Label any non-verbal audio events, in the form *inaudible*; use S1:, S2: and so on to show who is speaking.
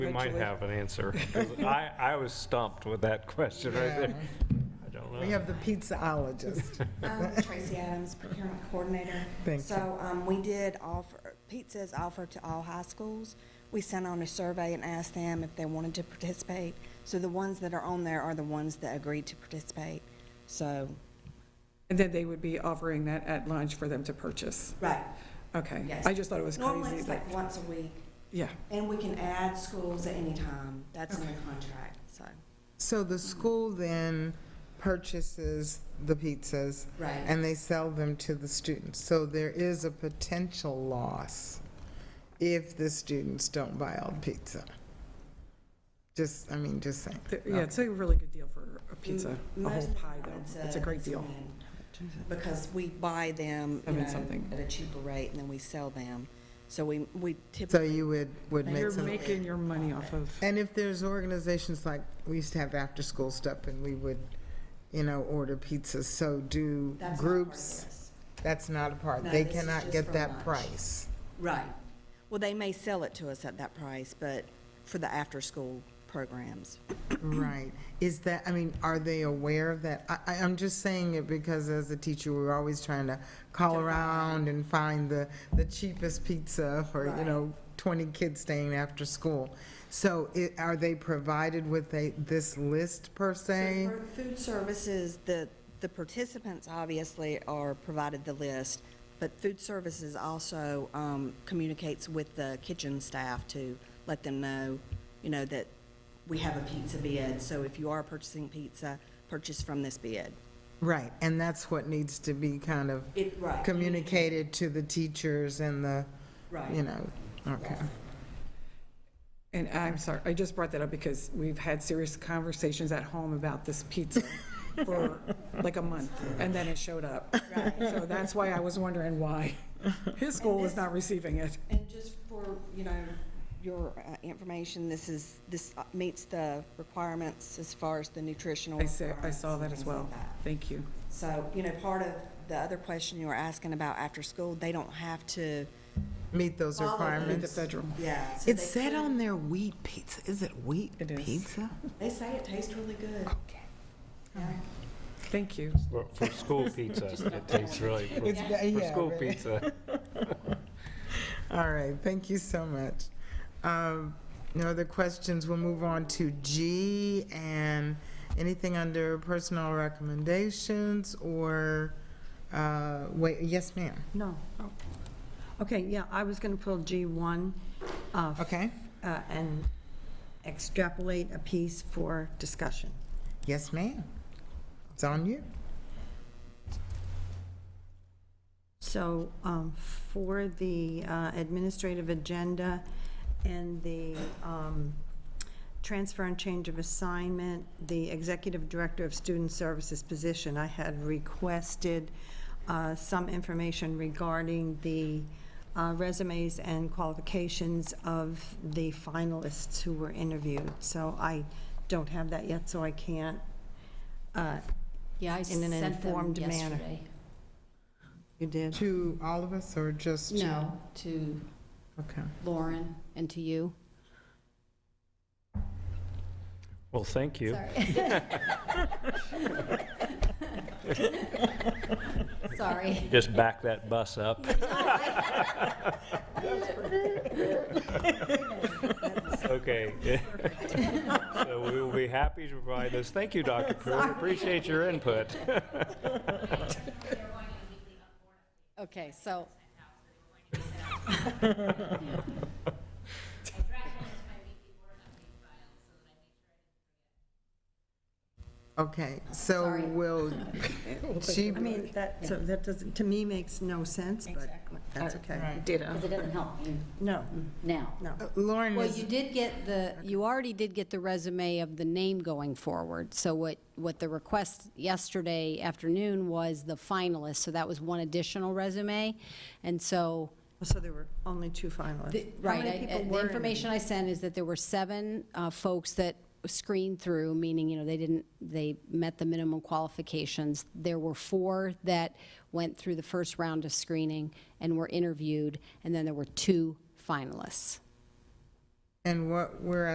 S1: We might
S2: Actually.
S1: have an
S2: *laughs*
S1: answer. 'cause I, I was stumped with that question right there. I don't
S2: We
S1: know.
S2: have the pizzaologist. *laughs*
S3: Um, Tracy Adams, procurement coordinator.
S2: Thank you.
S3: So um, we did offer, pizza is offered to all high schools. We sent on a survey and asked them if they wanted to participate. So the ones that are on there are the ones that agreed to participate. So,
S4: And then they would be offering that at lunch for them to purchase?
S3: right,
S4: Okay.
S3: yes.
S4: I just thought it was
S3: Normally
S4: crazy
S3: it's
S4: that,
S3: like once a week,
S4: yeah.
S3: and we can add schools at any time. That's in the contract, so.
S2: So the school then purchases the pizzas
S3: Right.
S2: and they sell them to the students. So there is a potential loss if the students don't buy all the pizza. Just, I mean, just saying.
S4: Th- Yeah, it's a really good deal for a pizza,
S3: Mm,
S4: a whole pie though. It's a great deal.
S3: Because we buy them, you
S4: Having
S3: know,
S4: something.
S3: at a cheaper rate, and then we sell them. So we, we
S2: So
S3: typically,
S2: you would, would make
S4: You're
S2: some.
S4: making your money off of,
S2: And if there's organizations like, we used to have after-school stuff and we would, you know, order pizzas, so do
S3: that's not part of
S2: groups.
S3: this.
S2: That's not a part.
S3: No,
S2: They
S3: this is
S2: cannot
S3: just
S2: get
S3: for
S2: that
S3: lunch.
S2: price.
S3: Right. Well, they may sell it to us at that price, but for the after-school programs.
S2: Right. Is that, I mean, are they aware of that? I, I, I'm just saying it because as a teacher, we're always trying to call around and find the, the cheapest pizza for, you
S3: Right.
S2: know, twenty kids staying after school. So it, are they provided with a, this list per se?
S3: So for food services, the, the participants obviously are provided the list, but food services also um, communicates with the kitchen staff to let them know, you know, that we have a pizza bid, so if you are purchasing pizza, purchase from this bid.
S2: Right, and that's what needs to be kind of
S3: It, right.
S2: communicated to the teachers and the, you
S3: Right.
S2: know, okay.
S4: and I'm sorry, I just brought that up because we've had serious conversations at home about this
S3: *laughs*
S4: pizza for like a month, and then it showed up.
S3: Right.
S4: So that's why I was wondering why his school was not receiving it.
S3: And just for, you know, your uh, information, this is, this uh, meets the requirements as far as the nutritional.
S4: I saw, I
S3: requirements
S4: saw
S3: and
S4: that as
S3: things like
S4: well.
S3: that.
S4: Thank you.
S3: So, you know, part of the other question you were asking about after school, they don't have to.
S2: Meet those
S3: Follow the-
S4: Leave the
S2: requirements.
S4: federal.
S3: Yeah.
S2: It said on their wheat pizza, is it wheat
S4: It is.
S2: pizza?
S3: They say it tastes really good. Yeah.
S4: Thank you.
S1: For- For school
S2: *laughs*
S1: pizza, it tastes really, for-
S2: It's- yeah,
S1: for school
S2: really.
S1: pizza.
S2: All right, thank you so much. Um, No other questions, we'll move on to G and anything under personal recommendations or, uh, wait, yes, ma'am,
S5: No. Oh. Okay, yeah, I was going to pull G1 uh, f-
S2: okay?
S5: uh, and extrapolate a piece for discussion.
S2: Yes, ma'am. It's on you.
S5: So um, for the uh, administrative agenda and the um, transfer and change of assignment, the executive director of student services position, I had requested uh, some information regarding the uh, resumes and qualifications of the finalists who were interviewed. So I don't have that yet, so I can't uh,
S6: Yeah, I
S5: in an
S6: sent them
S5: informed manner.
S6: yesterday.
S5: You did?
S2: To all of us or just? to-
S6: No, to
S2: Okay.
S6: Lauren and to *laughs* you.
S1: Well, thank you.
S6: Sorry.
S1: Just back that bus
S2: *laughs*
S1: up. Okay. *laughs* So we will be happy to provide this. Thank you, Dr. Pruitt. Appreciate your input.
S6: Okay, so,
S2: Okay, so
S5: *laughs*
S6: Sorry.
S2: will she,
S5: I mean, that, so that doesn't, to me, makes no sense, but that's okay.
S6: because it doesn't help you
S5: No,
S6: now.
S5: no.
S2: Lauren
S6: Well,
S2: is
S6: you did get the, you already did get the resume of the name going forward. So what, what the request yesterday afternoon was the finalist, so that was one additional resume. And so,
S5: So there were only two finalists.
S6: The-
S5: How
S6: Right,
S5: many
S6: I-
S5: people
S6: I-
S5: were
S6: the
S5: in-
S6: information I sent is that there were seven uh, folks that screened through, meaning, you know, they didn't, they met the minimum qualifications. There were four that went through the first round of screening and were interviewed, and then there were two finalists.
S2: And what we're